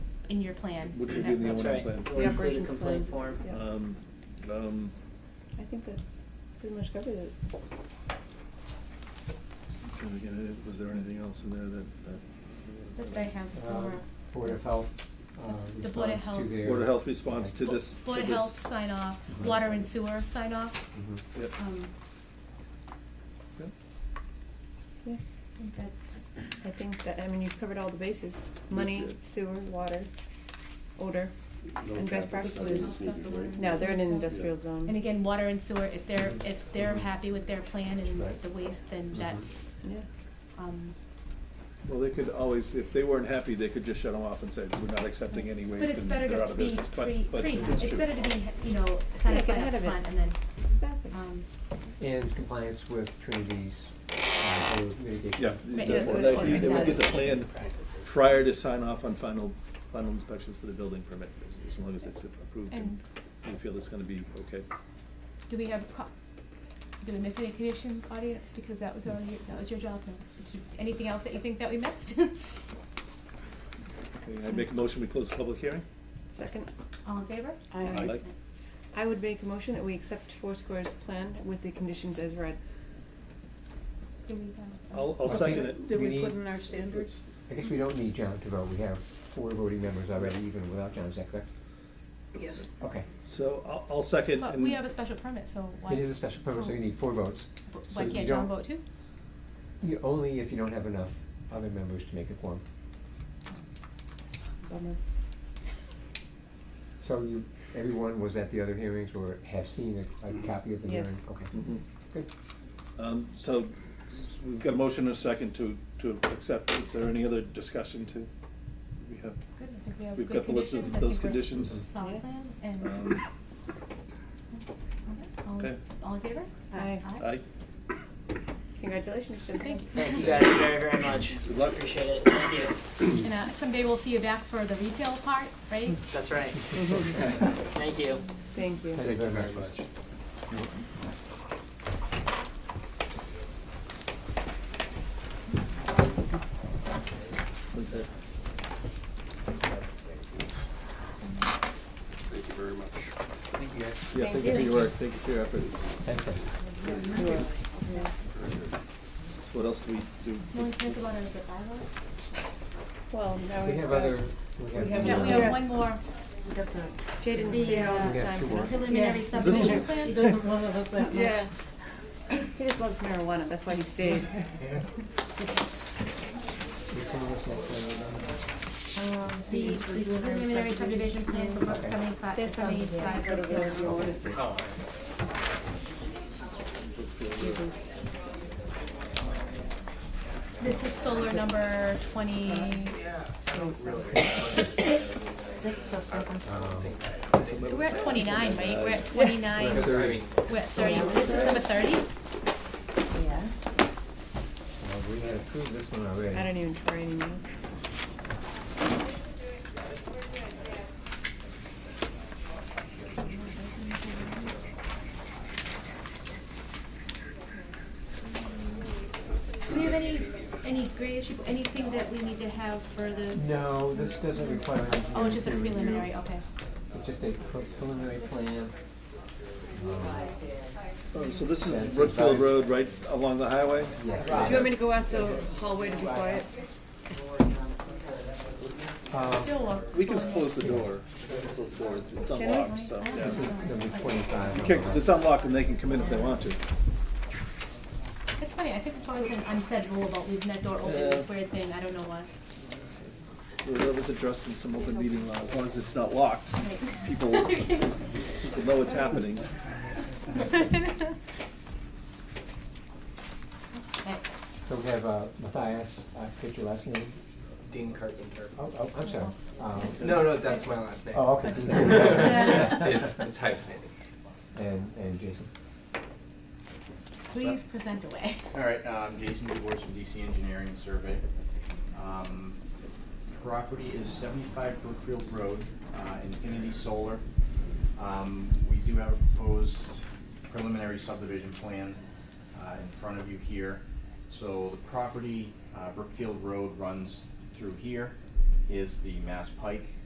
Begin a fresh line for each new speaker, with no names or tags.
in your plan.
Which would be in the
That-
O and
That's
M
right.
plan.
We'll
The
include a
operations
complaint
plan.
form.
Yeah.
Um, um,
I think that's pretty much covered it.
trying to get it- was there anything else in there that, that?
That's what I have
Uh,
for.
Board of Health, uh,
The Board of
response to
Health.
their.
Board of Health response to
Okay.
this, to
Board of
this- Uh-huh. Mm-hmm.
Health sign off, water and sewer sign off.
Mhm.
Yep.
Um,
Yep.
Yeah,
I think that's,
I think that, I mean, you've covered all the bases, money,
did.
sewer, water, odor.
No
And best
traffic
practices.
studies needed, right?
No, they're in an industrial
Yeah.
zone.
and again, water and sewer, if they're,
Mm-hmm.
if they're happy with their plan and
Right.
the waste, then
Mhm.
that's,
Yeah,
um,
Well, they could always, if they weren't happy, they could just shut them off and say, we're not accepting any
but
waste
it's
and
better
they're out
to
of
be
business. But-
pre,
but
pre,
it's
it's
true.
better to be, you know,
Yeah, get
satisfied
ahead
up
of it.
front and then,
exactly.
um,
And compliance with Trinity's, uh, code mitigation.
Yeah,
Right.
the-
Yeah,
or
good
they,
point.
they would get the plan
Exactly. Practices.
prior to sign off on final, final inspections for the building permit, as- as long as it's approved and we feel it's gonna be okay.
do we have, co- did we miss any condition audience, because that was our, that was your job, no, Did you- anything else that you think that we missed?
Okay, I make a motion, we close the public hearing?
Second,
All in favor?
Aye. Aye.
I would make a motion that we accept Four Square's plan with the conditions as read.
Do we, uh,
I'll, I'll
I think-
second it.
Did we
We-
put in our standards?
It's-
I guess we don't need John to vote, we have four voting members already, even without John, is that correct?
Yes.
Okay,
So I'll, I'll second
But
and.
we have a special permit, so why?
it is a special permit, so you need four votes. So
Why
you
can't John
don't-
vote too?
you- Only if you don't have enough other members to make a quorum.
Bummer.
So you, everyone was at the other hearings or have seen a, a copy of the hearing?
Yes.
Okay,
Mhm.
good.
Um, so we've got a motion and a second to, to accept. Is there any other discussion to, we have?
Good, I think we have
We've
good
got the list of
conditions. I
those
think we're
conditions.
Solid
Yeah.
plan and.
Um,
Okay, all-
okay.
All in favor?
Aye.
Aye.
Congratulations, Jennifer.
Thank you.
Thank you guys very, very much.
Good luck.
Appreciate it. Thank you.
And uh, someday we'll see you back for the retail part, right?
That's right. Thank you.
Thank you.
Thank you very much.
What's that?
Thank you very much.
Thank you guys.
Yeah, thank you for your work. Thank you for your efforts. So what else do we do?
No one cares about it as a bylaw?
Well, now
We
we've
have
got-
other, we
We
have.
have-
the,
No, we
uh,
have one more
We got the,
Jay didn't
The,
stay all
uh,
this
Yeah,
time.
two more.
preliminary
Yeah.
subdivision
This
he
plan.
doesn't love us that much.
Yeah. He just loves marijuana, that's why he stayed.
Which one was next one?
Um,
The the preliminary subdivision plan for Brook
Okay.
seventy-five to
There's some-
seventy-five.
yeah.
Brookfield Road. This is solar number twenty,
Oh,
Six or seven.
Um,
we're at twenty-nine, right? We're at twenty-nine.
Thirty.
We're at thirty, this is number thirty?
Yeah.
Well, Uh, we had approved this one already.
I don't even try anymore.
Do we have any, any gray issue, anything that we need to have for the,
No, this doesn't require. an
oh, it's just a
engineering review.
preliminary, okay.
It's just a pre- preliminary plan. Um,
Oh, So this is
Yeah, it's
Brookfield
inside.
Road, right along the highway?
Do you want me to go ask the hallway to be quiet?
uh,
Still works.
We can just close the door. Close the door. It's- It's
we?
unlocked, so, yeah.
This is number twenty-five.
Okay, because it's unlocked and they can come in if they want to.
It's funny, I think it's always an unsaid rule about leaving that door open, this weird thing, I don't know why.
Well, That was addressed in some open meeting law. As long as it's not locked,
Right.
people people know what's happening.
Okay.
So we have uh, Matthias, uh, what's your last name?
Dean Carpenter.
Oh, oh, I'm sorry. Um,
No, no, that's my last name.
Oh, okay.
It- It's hyphenated.
And, and Jason.
Please present away.
All right, um, Jason DeWors from DC Engineering and Survey. Um, property is seventy-five Brookfield Road, uh, Infinity Solar. Um, we do have a proposed preliminary subdivision plan, uh, in front of you here. So the property, uh, Brookfield Road runs through here, is the Mass Pike,